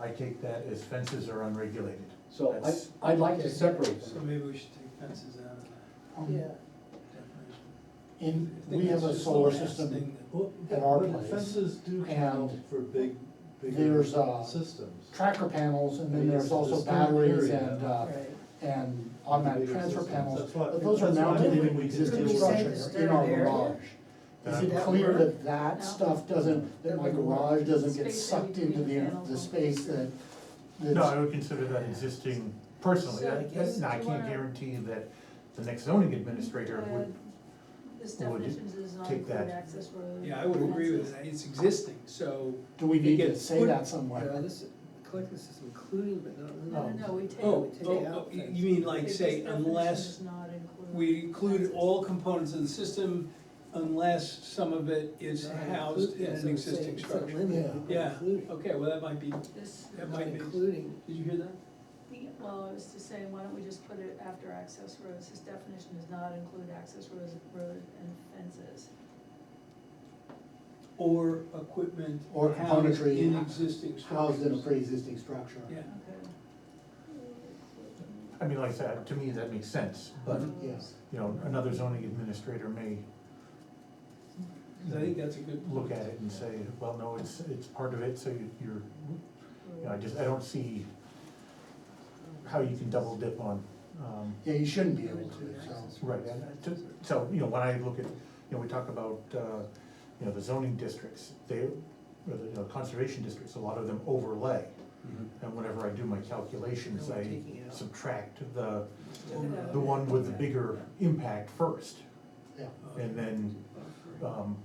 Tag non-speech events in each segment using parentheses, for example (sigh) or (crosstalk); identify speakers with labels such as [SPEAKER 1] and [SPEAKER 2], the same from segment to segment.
[SPEAKER 1] I take that as fences are unregulated.
[SPEAKER 2] So
[SPEAKER 1] That's-
[SPEAKER 2] I, I'd like to
[SPEAKER 3] Okay.
[SPEAKER 2] separate
[SPEAKER 3] So
[SPEAKER 2] them.
[SPEAKER 3] maybe we should take fences out of that
[SPEAKER 4] Um,
[SPEAKER 3] definition.
[SPEAKER 2] In,
[SPEAKER 3] I think
[SPEAKER 2] we
[SPEAKER 3] that's
[SPEAKER 2] have a
[SPEAKER 3] just the
[SPEAKER 2] solar
[SPEAKER 3] last
[SPEAKER 2] system,
[SPEAKER 3] thing that-
[SPEAKER 5] Well,
[SPEAKER 2] At our
[SPEAKER 5] but
[SPEAKER 2] place.
[SPEAKER 5] Fences do count
[SPEAKER 2] And
[SPEAKER 5] for big, bigger
[SPEAKER 2] there's, uh,
[SPEAKER 5] systems.
[SPEAKER 2] tracker panels, and then
[SPEAKER 5] Yes,
[SPEAKER 2] there's also
[SPEAKER 5] there's
[SPEAKER 2] batteries
[SPEAKER 5] area.
[SPEAKER 2] and, uh,
[SPEAKER 4] Right.
[SPEAKER 2] and automatic
[SPEAKER 5] Bigger
[SPEAKER 2] transfer
[SPEAKER 5] systems.
[SPEAKER 2] panels.
[SPEAKER 5] That's what-
[SPEAKER 2] But those are
[SPEAKER 5] that's what I
[SPEAKER 2] mounted
[SPEAKER 5] did
[SPEAKER 2] in
[SPEAKER 5] when we did
[SPEAKER 2] existing
[SPEAKER 4] Could
[SPEAKER 5] the-
[SPEAKER 4] you say
[SPEAKER 2] structures
[SPEAKER 4] the
[SPEAKER 2] in our
[SPEAKER 4] standard area?
[SPEAKER 2] garage. Is it
[SPEAKER 4] That
[SPEAKER 2] clear
[SPEAKER 4] work?
[SPEAKER 2] that that
[SPEAKER 4] No.
[SPEAKER 2] stuff doesn't, that my garage doesn't get
[SPEAKER 4] Space that
[SPEAKER 2] sucked
[SPEAKER 4] you can
[SPEAKER 2] into the,
[SPEAKER 4] handle.
[SPEAKER 2] the space that,
[SPEAKER 1] No, I
[SPEAKER 2] that's,
[SPEAKER 1] would consider that existing personally,
[SPEAKER 4] So I
[SPEAKER 1] I,
[SPEAKER 4] guess
[SPEAKER 1] I
[SPEAKER 4] you
[SPEAKER 1] can't
[SPEAKER 4] wanna-
[SPEAKER 1] guarantee that the next zoning administrator would
[SPEAKER 4] This
[SPEAKER 1] would
[SPEAKER 4] definition does not
[SPEAKER 1] take
[SPEAKER 4] include
[SPEAKER 1] that.
[SPEAKER 4] access road.
[SPEAKER 3] Yeah, I would agree with
[SPEAKER 4] fences.
[SPEAKER 3] that, it's existing, so,
[SPEAKER 2] do we
[SPEAKER 3] It
[SPEAKER 2] need to
[SPEAKER 3] gets
[SPEAKER 2] say
[SPEAKER 3] put-
[SPEAKER 2] that
[SPEAKER 6] No,
[SPEAKER 2] somewhere?
[SPEAKER 6] this, collective system including but not
[SPEAKER 4] No,
[SPEAKER 6] limited
[SPEAKER 4] no, no, we take.
[SPEAKER 3] oh,
[SPEAKER 6] take
[SPEAKER 3] oh, oh,
[SPEAKER 6] out
[SPEAKER 3] you
[SPEAKER 6] fences.
[SPEAKER 3] you mean like
[SPEAKER 4] this
[SPEAKER 3] say
[SPEAKER 4] definition
[SPEAKER 3] unless
[SPEAKER 4] does not include
[SPEAKER 3] we include
[SPEAKER 4] fences.
[SPEAKER 3] all components of the system unless some of it is
[SPEAKER 6] Not
[SPEAKER 3] housed in
[SPEAKER 6] including,
[SPEAKER 3] an
[SPEAKER 6] so it's saying
[SPEAKER 3] existing
[SPEAKER 6] it's
[SPEAKER 3] structure.
[SPEAKER 6] not limited,
[SPEAKER 2] Yeah.
[SPEAKER 6] but
[SPEAKER 3] Yeah,
[SPEAKER 6] including.
[SPEAKER 3] okay, well, that might be,
[SPEAKER 4] This,
[SPEAKER 3] that
[SPEAKER 6] Not
[SPEAKER 3] might be, did
[SPEAKER 6] including,
[SPEAKER 3] you hear that?
[SPEAKER 4] the- well, I was just saying, why don't we just put it after access roads, this definition does not include access roads, road and fences.
[SPEAKER 3] Or equipment
[SPEAKER 2] Or
[SPEAKER 3] housed
[SPEAKER 2] componentry
[SPEAKER 3] in existing structures.
[SPEAKER 2] Housed in a pre-existing structure.
[SPEAKER 3] Yeah,
[SPEAKER 4] Okay.
[SPEAKER 1] I mean, like I said, to me, that makes sense, but,
[SPEAKER 2] yes.
[SPEAKER 1] you know, another zoning administrator may
[SPEAKER 3] 'cause I think that's a good point.
[SPEAKER 1] look at it and say, well, no, it's, it's part of it, so you- you're,
[SPEAKER 6] Mm.
[SPEAKER 1] you know, I just, I don't see how you can double dip on, um,
[SPEAKER 2] Yeah, you shouldn't be able to, so.
[SPEAKER 1] right, and I just- so, you know, when I look at, you know, we talk about, uh, you know, the zoning districts, they, or the, you know, conservation districts, a lot of them overlay. And whenever I do my calculations,
[SPEAKER 6] No, we're
[SPEAKER 1] I
[SPEAKER 6] taking it out.
[SPEAKER 1] subtract the,
[SPEAKER 6] Oh,
[SPEAKER 4] Overlay.
[SPEAKER 1] the one with the bigger impact first,
[SPEAKER 2] Yeah.
[SPEAKER 1] and then, um,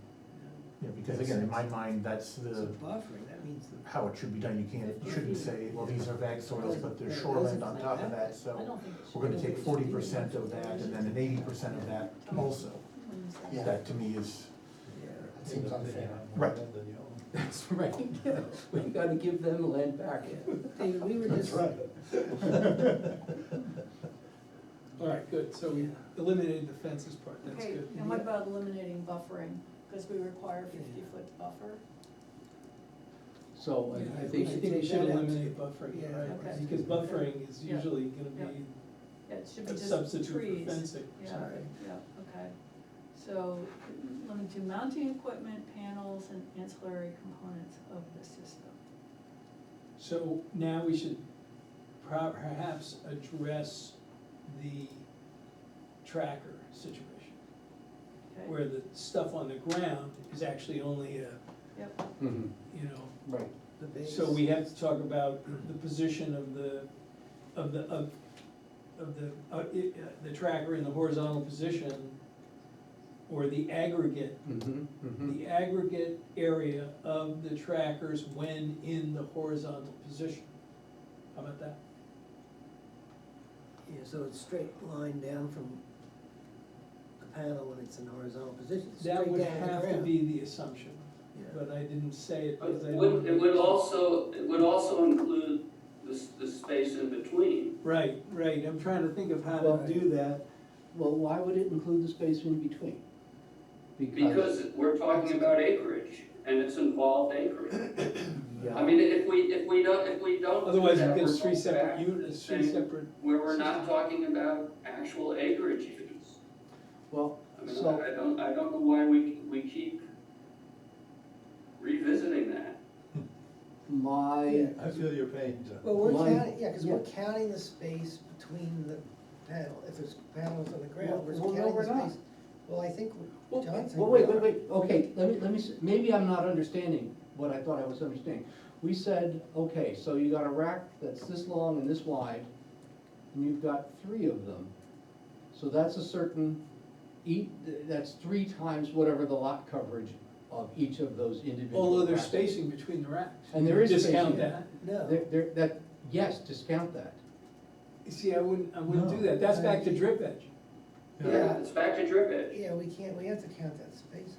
[SPEAKER 1] you know, because again, in my mind, that's
[SPEAKER 6] So
[SPEAKER 1] the,
[SPEAKER 6] buffering, that means the.
[SPEAKER 1] how it should be done, you can't, you shouldn't say, well, these are bag soils, but there's shoreland on top of that,
[SPEAKER 4] I
[SPEAKER 1] so
[SPEAKER 4] don't think it should.
[SPEAKER 1] we're gonna take forty percent of that and then an eighty percent of that also.
[SPEAKER 4] Wouldn't say.
[SPEAKER 2] Yeah.
[SPEAKER 1] That to me is,
[SPEAKER 2] It seems
[SPEAKER 7] (laughs)
[SPEAKER 2] unfair.
[SPEAKER 1] Right.
[SPEAKER 6] That's right, we gotta give them land back. David, we were
[SPEAKER 2] That's
[SPEAKER 6] just.
[SPEAKER 2] right. (laughs)
[SPEAKER 6] (laughs)
[SPEAKER 3] All right, good, so we eliminated the fences part, that's
[SPEAKER 4] Okay,
[SPEAKER 3] good.
[SPEAKER 4] and what about eliminating buffering, because we require fifty foot buffer?
[SPEAKER 2] So,
[SPEAKER 3] Yeah, I
[SPEAKER 6] I
[SPEAKER 3] think,
[SPEAKER 6] think
[SPEAKER 3] I
[SPEAKER 6] you
[SPEAKER 3] think we
[SPEAKER 6] take
[SPEAKER 3] should
[SPEAKER 6] that out
[SPEAKER 3] eliminate buffering,
[SPEAKER 6] Yeah,
[SPEAKER 3] right,
[SPEAKER 4] okay.
[SPEAKER 3] because buffering is
[SPEAKER 4] Yeah.
[SPEAKER 3] usually gonna be
[SPEAKER 4] Yeah, It should be
[SPEAKER 3] a
[SPEAKER 4] just trees.
[SPEAKER 3] substitute for fencing.
[SPEAKER 4] Yeah,
[SPEAKER 6] Sorry.
[SPEAKER 4] yeah, okay. So, limit to mounting equipment, panels, and ancillary components of the system.
[SPEAKER 3] So now we should pro- perhaps address the tracker situation,
[SPEAKER 4] Okay,
[SPEAKER 3] where the stuff on the ground is actually only a,
[SPEAKER 4] yep,
[SPEAKER 3] you know,
[SPEAKER 2] Right.
[SPEAKER 6] The base.
[SPEAKER 3] so we have to talk about the position of the, of the, of, of the, uh, i- uh, the tracker in the horizontal position, or the aggregate
[SPEAKER 2] Mm-hmm,
[SPEAKER 8] Hmm.
[SPEAKER 3] the aggregate area of the trackers when in the horizontal position. How about that?
[SPEAKER 6] Yeah, so it's straight line down from the panel when it's in horizontal position, straight down
[SPEAKER 3] That
[SPEAKER 6] to
[SPEAKER 3] would
[SPEAKER 6] the
[SPEAKER 3] have to
[SPEAKER 6] ground.
[SPEAKER 3] be the assumption,
[SPEAKER 6] Yeah.
[SPEAKER 3] but I didn't say it because I
[SPEAKER 8] Would, it
[SPEAKER 3] don't.
[SPEAKER 8] would also, it would also include the, s- the space in between.
[SPEAKER 3] Right, right, I'm trying to think of how
[SPEAKER 7] Well,
[SPEAKER 3] to do.
[SPEAKER 7] do that, well, why would it include the space in between?
[SPEAKER 8] Because we're talking about acreage, and it's involved acreage. I
[SPEAKER 7] Yeah.
[SPEAKER 8] mean, if we, if we don't, if we don't. do
[SPEAKER 3] Otherwise,
[SPEAKER 8] that,
[SPEAKER 3] it gets
[SPEAKER 8] we're
[SPEAKER 3] three separate
[SPEAKER 8] back to the
[SPEAKER 3] units, three
[SPEAKER 8] same-
[SPEAKER 3] separate,
[SPEAKER 8] Where we're not talking about actual acreage units.
[SPEAKER 7] Well,
[SPEAKER 8] I mean,
[SPEAKER 7] So-
[SPEAKER 8] I don't, I don't know why we, we keep revisiting that.
[SPEAKER 7] my,
[SPEAKER 5] I feel your pain, John.
[SPEAKER 6] Well, we're
[SPEAKER 7] Line-
[SPEAKER 6] counting, yeah, because we're
[SPEAKER 7] yeah.
[SPEAKER 6] counting the space between the panel, if there's panels on the
[SPEAKER 7] Well,
[SPEAKER 6] ground, we're
[SPEAKER 7] well, no,
[SPEAKER 6] counting the space.
[SPEAKER 7] we're not.
[SPEAKER 6] Well, I think, we-
[SPEAKER 7] well,
[SPEAKER 6] John's saying
[SPEAKER 7] well,
[SPEAKER 6] we
[SPEAKER 7] wait, wait,
[SPEAKER 6] are.
[SPEAKER 7] wait, okay, let me, let me, s- maybe I'm not understanding what I thought I was understanding. We said, okay, so you got a rack that's this long and this wide, and you've got three of them. So that's a certain, eat, that's three times whatever the lot coverage of each of those individual
[SPEAKER 3] although there's
[SPEAKER 7] racks.
[SPEAKER 3] spacing between the racks.
[SPEAKER 7] And there is spacing.
[SPEAKER 3] Discount that.
[SPEAKER 6] No,
[SPEAKER 7] There, there, that, yes, discount that.
[SPEAKER 3] You See, I wouldn't, I wouldn't do
[SPEAKER 1] No.
[SPEAKER 3] that, that's back to drip edge.
[SPEAKER 6] Yeah.
[SPEAKER 8] It's back to drip edge.
[SPEAKER 6] yeah, we can't, we have to count that space,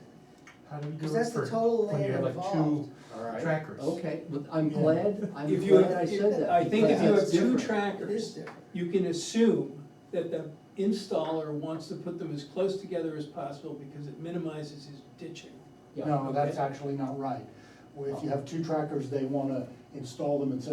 [SPEAKER 1] how do you do
[SPEAKER 6] because
[SPEAKER 1] it
[SPEAKER 6] that's the
[SPEAKER 1] for,
[SPEAKER 6] total
[SPEAKER 1] when you
[SPEAKER 6] land
[SPEAKER 1] have like two
[SPEAKER 6] involved.
[SPEAKER 7] All right. Oh,
[SPEAKER 1] trackers?
[SPEAKER 7] Okay, well, I'm
[SPEAKER 1] Yeah.
[SPEAKER 7] glad, I'm
[SPEAKER 3] If you
[SPEAKER 7] glad
[SPEAKER 3] have-
[SPEAKER 7] I
[SPEAKER 3] if-
[SPEAKER 7] said that.
[SPEAKER 3] I think if
[SPEAKER 7] because
[SPEAKER 3] you have
[SPEAKER 7] that's
[SPEAKER 3] two
[SPEAKER 7] different.
[SPEAKER 6] It
[SPEAKER 3] trackers,
[SPEAKER 6] is different.
[SPEAKER 3] you can assume that the installer wants to put them as close together as possible because it minimizes his ditching.
[SPEAKER 7] Yeah.
[SPEAKER 2] No, that's actually not right. If you have two trackers, they wanna install them and set